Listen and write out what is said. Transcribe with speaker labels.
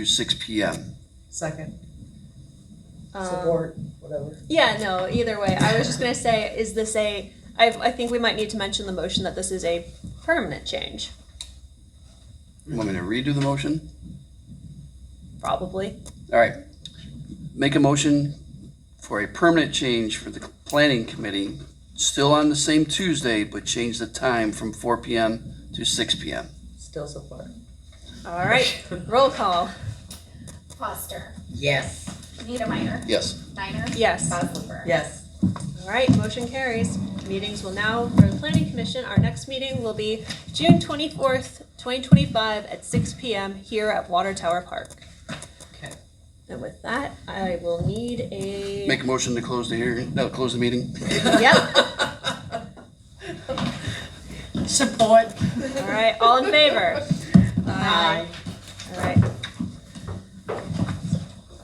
Speaker 1: to six P M.
Speaker 2: Second,
Speaker 3: Um,
Speaker 2: support, whatever.
Speaker 3: Yeah, no, either way. I was just gonna say, is this a, I, I think we might need to mention the motion that this is a permanent change,
Speaker 1: Want me to redo the motion?
Speaker 3: probably.
Speaker 1: All right. Make a motion for a permanent change for the planning committee, still on the same Tuesday, but change the time from four P M to six P M.
Speaker 2: Still support.
Speaker 3: All right, roll call.
Speaker 4: Foster.
Speaker 2: Yes.
Speaker 4: Niedermeyer.
Speaker 1: Yes.
Speaker 4: Niner.
Speaker 3: Yes.
Speaker 4: Bosler.
Speaker 2: Yes.
Speaker 3: All right, motion carries. Meetings will now, for the planning commission, our next meeting will be June twenty-fourth, twenty twenty-five at six P M here at Water Tower Park.
Speaker 2: Okay.
Speaker 3: And with that, I will need a.
Speaker 1: Make a motion to close the hearing, no, close the meeting.
Speaker 3: Yep,
Speaker 2: Support.
Speaker 3: all right, all in favor?
Speaker 2: Aye.